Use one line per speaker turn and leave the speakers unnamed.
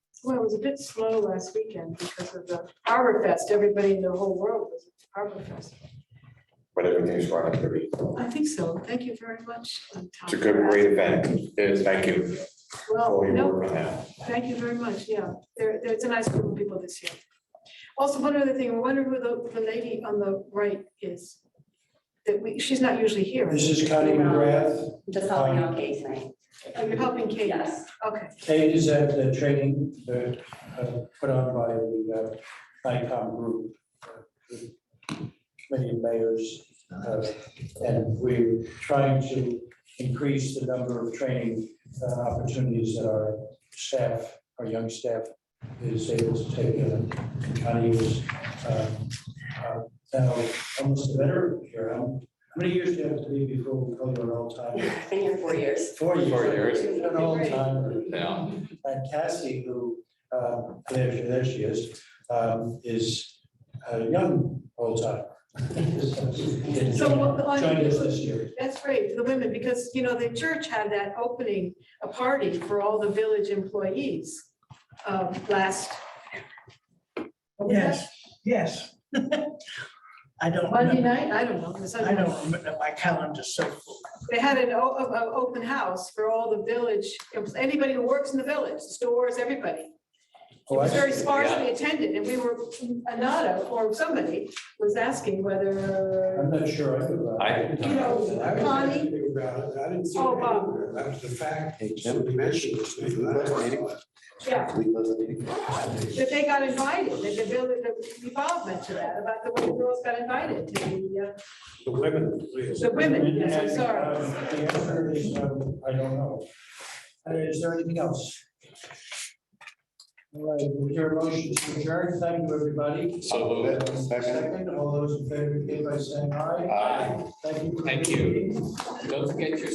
was a bit slow last weekend because of the Harbor Fest. Everybody in the whole world was at Harbor Fest.
but everything's running pretty.
I think so. Thank you very much. uh, Tom,
It's a good,
for
great event. Yes, Thank you
asking.
for
Well,
all your
no,
work on that.
thank you very much. Yeah, there, there's a nice group of people this year. Also, one other thing, I wonder who the, the lady on the right is. That we, she's not usually here.
This is Connie McGrath.
Just helping out Kate, right?
Oh, You're helping Kate.
Yes.
Okay,
Kate is at the training uh, uh, put on by the uh, ICOM group. uh, Many mayors. uh, And we're trying to increase the number of training uh, opportunities that our staff, our young staff is able to take. And Connie is um, uh, now almost a veteran here. How many years do you have to be before we call you an all-time?
I've been here four years.
Four years.
Four years.
An all-time.
Yeah.
And Cassie, who, uh, there she, there she is, um, is a young old timer.
So uh, what the-
Joined us this year.
that's great for the women because, you know, the church had that opening, a party for all the village employees um, last. what was that?
Yes, yes. I don't
Monday
remember,
night, I don't know. it was
I
Sunday night.
don't remember, my calendar's so full.
They had an o- o- o- open house for all the village, anybody who works in the village, stores, everybody. It
Oh, I
was very
see.
sparsely attended and we were, Anada or somebody was asking whether,
I'm not sure I knew about.
I-
it.
you know,
I was
Connie?
thinking about it. I didn't see
Oh,
it
wow.
anywhere. That was the fact.
Hey, Jim.
Somebody mentioned this. thing. I
Last
don't
meeting.
know.
yeah,
Yeah.
that they got invited, that the village, the involvement to that, about the way the girls got invited to the, uh,
The women, please.
the women, yes, I'm
And,
sorry.
um, The answer is, um, I don't know. Uh, Is there anything else? All right, with your motion to adjourn, thank you, everybody.
So moved.
Um,
Second.
Second, all those in favor, give by saying aye.
Aye.
Thank you.
Thank you. Don't forget your